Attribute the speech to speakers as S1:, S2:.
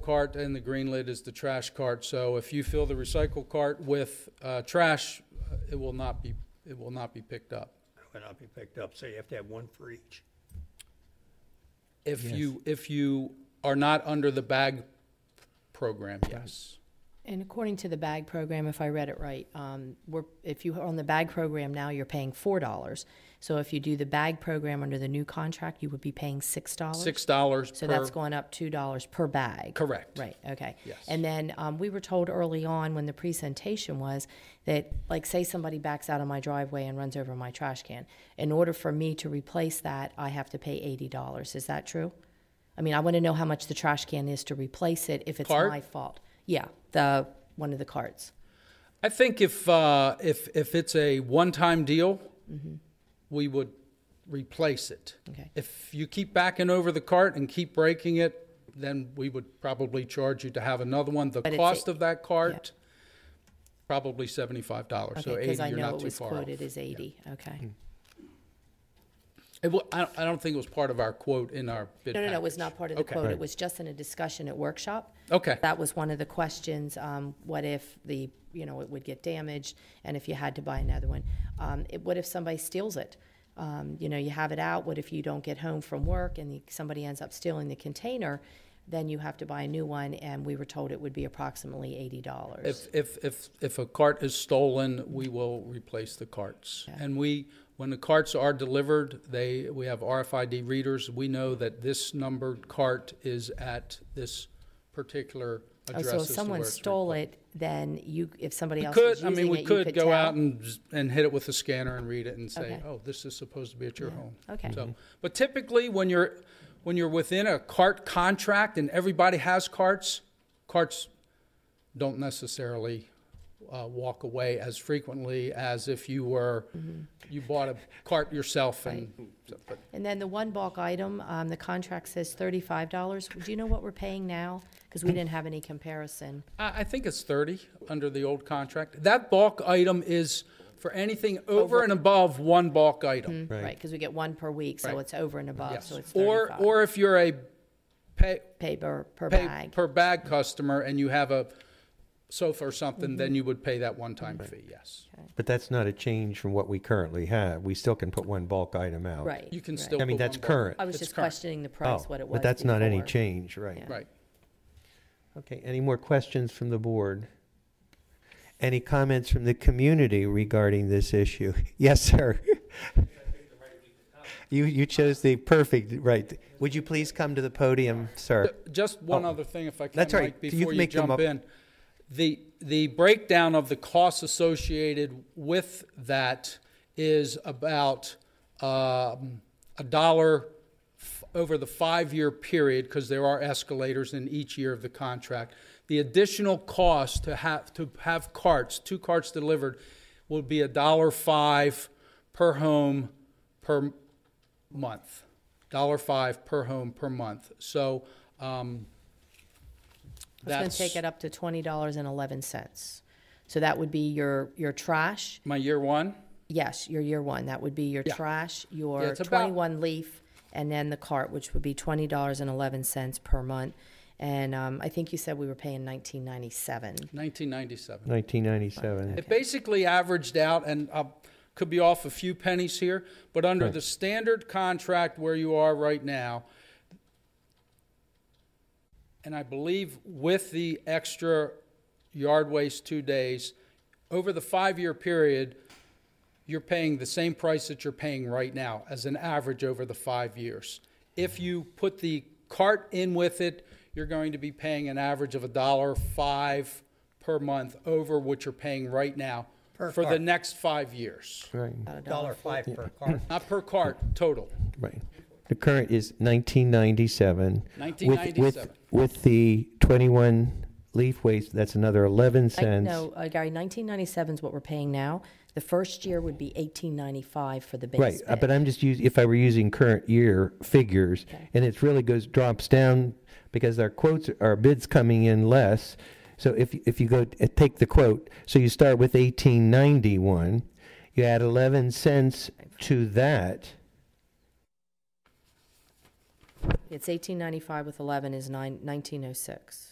S1: cart and the green lid is the trash cart. So if you fill the recycle cart with uh, trash, uh, it will not be, it will not be picked up.
S2: will not be picked up, so you have to have one for each.
S1: If you, if you are not under the bag program, yes.
S3: And according to the bag program, if I read it right, um, we're, if you are on the bag program now, you're paying four dollars. So if you do the bag program under the new contract, you would be paying six dollars.
S1: Six dollars
S3: So
S1: per,
S3: that's going up two dollars per bag.
S1: correct.
S3: Right, okay.
S1: Yes.
S3: And then, um, we were told early on when the presentation was that, like, say somebody backs out of my driveway and runs over my trash can. In order for me to replace that, I have to pay eighty dollars. Is that true? I mean, I want to know how much the trash can is to replace it if it's
S1: Cart?
S3: my fault. Yeah, the, one of the carts.
S1: I think if, uh, if, if it's a one-time deal, we would replace it.
S3: Mm-hmm. Okay.
S1: If you keep backing over the cart and keep breaking it, then we would probably charge you to have another one. The
S3: But it's
S1: cost
S3: a-
S1: of that cart, probably seventy-five dollars,
S3: Okay,
S1: so
S3: because
S1: eighty,
S3: I
S1: you're
S3: know
S1: not
S3: it
S1: too
S3: was
S1: far off. Hmm.
S3: quoted as eighty, okay.
S1: It wa- I, don't- I don't think it was part of our quote in our bid
S3: No, no, no, it was
S1: package.
S3: not part of the
S1: Okay.
S3: quote. It was just in a discussion at workshop.
S1: Okay.
S3: That was one of the questions, um, what if the, you know, it would get damaged, and if you had to buy another one? Um, it, what if somebody steals it? Um, you know, you have it out, what if you don't get home from work and the- somebody ends up stealing the container? Then you have to buy a new one, and we were told it would be approximately eighty dollars.
S1: If, if, if, if a cart is stolen, we will replace the carts. And we, when the carts are delivered, they, we have RFID readers. We know that this numbered cart is at this particular address.
S3: Oh, So
S1: as
S3: if
S1: to
S3: someone
S1: where it's
S3: stole
S1: replaced.
S3: it, then you, if somebody
S1: We
S3: else was
S1: could, I
S3: using it,
S1: mean,
S3: you
S1: we
S3: could
S1: could go
S3: tell?
S1: out and, z- and hit it with a scanner and read it and say,
S3: Okay.
S1: oh, this is supposed to be at your home.
S3: Okay.
S1: So, but typically, when you're, when you're within a cart contract and everybody has carts, carts don't necessarily uh, walk away as frequently as if you were,
S3: Mm-hmm.
S1: you bought a cart yourself and, so, but
S3: And then the one bulk item, um, the contract says thirty-five dollars. Do you know what we're paying now? Because we didn't have any comparison.
S1: I, I think it's thirty under the old contract. That bulk item is for anything over and above one bulk item.
S3: Right, because we get one per week, so
S1: Right.
S3: it's over and above, so it's
S1: Or,
S3: thirty-five.
S1: or if you're a pay,
S3: Pay per, per
S1: pay
S3: bag.
S1: per bag customer and you have a sofa or
S3: Mm-hmm.
S1: something, then you would pay that one-time fee, yes.
S4: But that's not a change from what we currently have. We still can put one bulk item out.
S3: Right.
S1: You can
S3: right.
S1: still.
S4: I mean,
S1: put
S4: that's
S1: one bulk.
S4: current.
S3: I was
S1: it's
S3: just
S1: current.
S3: questioning the price,
S4: Oh,
S3: what it was
S4: But that's not any
S3: before.
S4: change, right?
S3: Yeah.
S1: Right.
S4: Okay, any more questions from the board? Any comments from the community regarding this issue? Yes, sir. You, you chose the perfect, right. Would you please come to the podium, sir?
S1: Just one
S4: Oh.
S1: other thing, if I can,
S4: That's all
S1: Mike,
S4: right. You
S1: before
S4: can
S1: you
S4: make them
S1: jump
S4: up.
S1: in. The, the breakdown of the costs associated with that is about um, a dollar f- over the five-year period, because there are escalators in each year of the contract. The additional cost to have, to have carts, two carts delivered, will be a dollar five per home per month. Dollar five per home per month. So, um,
S3: It's gonna
S1: that's
S3: take it up to twenty dollars and eleven cents. So that would be your, your trash,
S1: my year one.
S3: yes, your year one, that would be your
S1: Yeah.
S3: trash,
S1: Yeah,
S3: your
S1: it's about-
S3: twenty-one leaf, and then the cart, which would be twenty dollars and eleven cents per month. And, um, I think you said we were paying nineteen ninety-seven.
S1: 1997.
S4: Nineteen ninety-seven.
S1: It basically averaged out, and I could be off a few pennies here, but under the standard contract where you are right now, and I believe with the extra yard waste two days, over the five-year period, you're paying the same price that you're paying right now as an average over the five years. If you put the cart in with it, you're going to be paying an average of a dollar five per month over what you're paying right now
S2: Per
S1: for the
S2: cart.
S1: next five years.
S4: Right,
S2: Dollar five per car.
S1: Not per cart, total.
S4: right. The current is nineteen ninety-seven. With,
S1: 1997.
S4: with the twenty-one leaf waste, that's another eleven
S3: Like,
S4: cents.
S3: No, uh, Gary, nineteen ninety-seven is what we're paying now. The first year would be eighteen ninety-five for the
S4: Right,
S3: base
S4: uh, but
S3: bid.
S4: I'm just using, if I were using current year figures, and it really goes, drops down because our quotes, our bids coming in less. So if, if you go, t- take the quote, so you start with eighteen ninety-one, you add eleven cents to that,
S3: It's eighteen ninety-five with eleven is nine, nineteen oh six.